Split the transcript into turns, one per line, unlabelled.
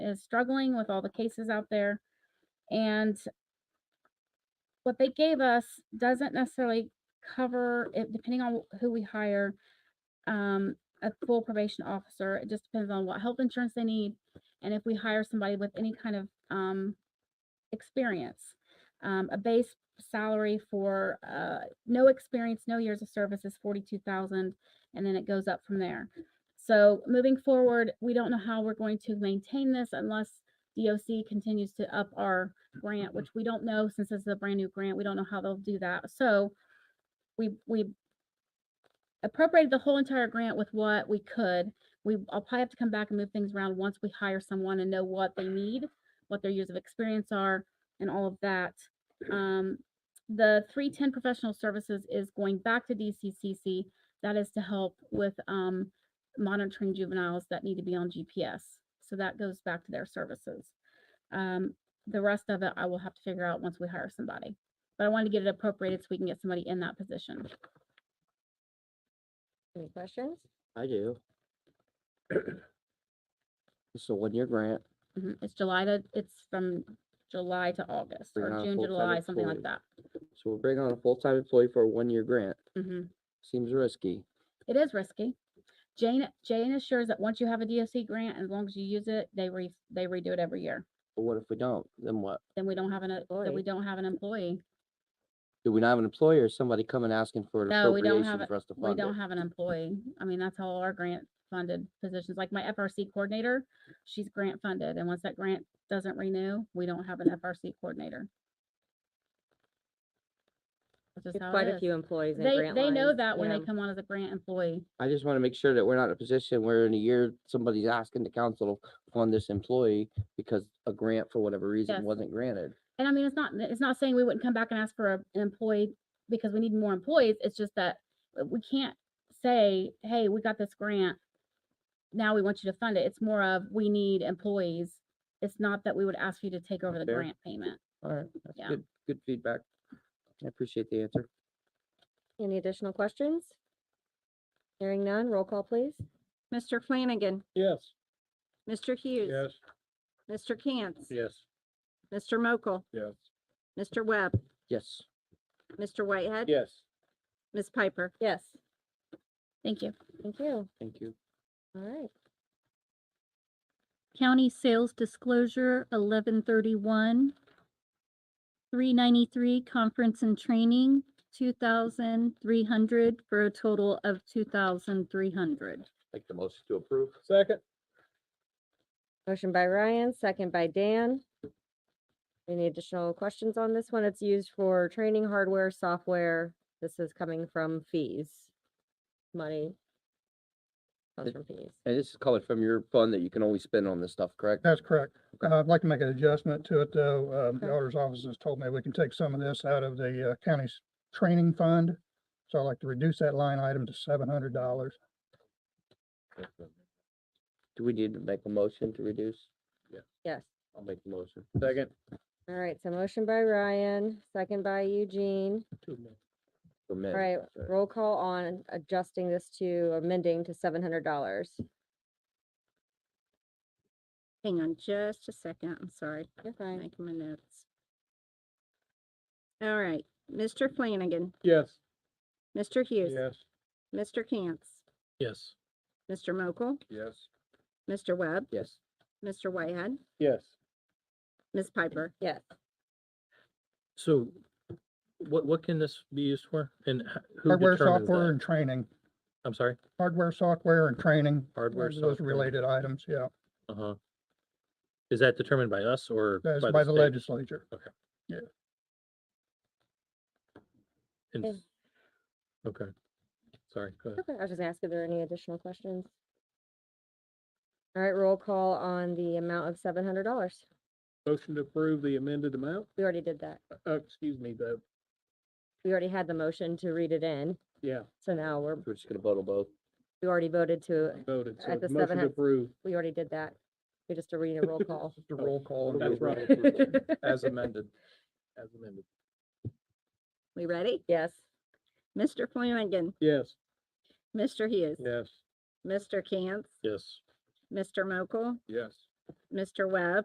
is struggling with all the cases out there. And what they gave us doesn't necessarily cover it, depending on who we hire, um, a full probation officer. It just depends on what health insurance they need and if we hire somebody with any kind of um, experience. Um, a base salary for uh, no experience, no years of service is forty-two thousand, and then it goes up from there. So moving forward, we don't know how we're going to maintain this unless DOC continues to up our grant, which we don't know since this is a brand new grant. We don't know how they'll do that. So we we appropriated the whole entire grant with what we could. We I'll probably have to come back and move things around once we hire someone and know what they need, what their years of experience are, and all of that. Um, the three ten professional services is going back to DCCC. That is to help with um, monitoring juveniles that need to be on GPS. So that goes back to their services. Um, the rest of it, I will have to figure out once we hire somebody. But I wanted to get it appropriated so we can get somebody in that position.
Any questions?
I do. It's a one-year grant.
Mhm, It's July to, it's from July to August
Bring
or
on a
June, to
full-time
July, something like
employee.
that.
So we're bringing on a full-time employee for a one-year grant.
Mhm.
Seems risky.
It is risky. Jane, Jane assures that once you have a DOC grant, as long as you use it, they re, they redo it every year.
But what if we don't? Then what?
Then we don't have an, uh, then we
Employee.
don't have an employee.
Do we not have an employer? Somebody coming asking for an
No, we don't have
appropriation
it.
for us to
We
fund
don't
it?
have an employee. I mean, that's all our grant funded positions. Like my FRC coordinator, she's grant funded. And once that grant doesn't renew, we don't have an FRC coordinator. That's just
There's
how
Quite
it
a
is.
few employees in
They,
grant
they know
lines,
that when
yeah.
they come on as a grant employee.
I just want to make sure that we're not in a position where in a year, somebody's asking the council to fund this employee because a grant for whatever
Yes.
reason wasn't granted.
And I mean, it's not, it's not saying we wouldn't come back and ask for a- an employee because we need more employees. It's just that uh, we can't say, hey, we got this grant. Now we want you to fund it. It's more of, we need employees. It's not that we would ask you to take over the
Fair.
grant payment.
All right, that's
Yeah.
good, good feedback. I appreciate the answer.
Any additional questions? Hearing none, roll call please.
Mr. Flanagan,
Yes.
Mr. Hughes, Mr. Cantz.
Yes.
Mr. Mokel,
Yes.
Mr. Webb,
Yes,
Mr. Whitehead.
Yes.
Ms. Piper.
Yes,
Thank you.
thank you.
thank you.
All right.
County Sales Disclosure, eleven thirty-one. Three ninety-three, Conference and Training, two thousand three hundred, for a total of two thousand three hundred.
Make the motion to approve.
Second?
Motion by Ryan, second by Dan. Any additional questions on this one? It's used for training hardware, software. This is coming from fees. Money. Comes
It-
from fees.
And this is coming from your fund that you can only spend on this stuff, correct?
That's correct. Uh, I'd like to make an adjustment to it, though. Um, The
Okay.
auditor's office has told me we can take some of this out of the uh, county's training fund. So I'd like to reduce that line item to seven hundred dollars.
Do we need to make a motion to reduce?
Yes.
I'll make the motion.
Second.
All right, so motion by Ryan, second by Eugene.
For
All
men.
right,
sorry.
roll call on adjusting this to amending to seven hundred dollars.
Hang on just a second. I'm sorry.
You're fine.
Making my notes. All right, Mr. Flanagan,
Yes.
Mr. Hughes,
Yes.
Mr. Cantz,
Yes.
Mr. Mokel,
Yes.
Mr. Webb,
Yes,
Mr. Whitehead,
Yes.
Ms. Piper.
Yes.
So what, what can this be used for and h- who
Hardware,
determines
software,
that?
and training.
I'm sorry,
Hardware, software, and training.
Hardware,
those- Those
software.
related items, yeah.
uh-huh. Is that determined by us or?
That's by the
state?
legislature.
And-
Yeah.
Okay, sorry, go ahead.
Okay, I was just gonna ask if there are any additional questions. All right, roll call on the amount of seven hundred dollars.
Motion to approve the amended amount?
We already did that.
Uh, excuse me, though.
We already had the motion to read it in,
Yeah,
so now we're,
we're just gonna vote on both.
we already voted to,
voted. So
At the
it's motion
700
to approve
we already did that. We just are reading a roll call.
Just a roll call.
That's right. as amended. As amended.
We ready?
Yes,
Mr. Flanagan,
Yes.
Mr. Hughes,
Yes.
Mr. Cantz,
Yes,
Mr. Mokel,
Yes.
Mr. Webb.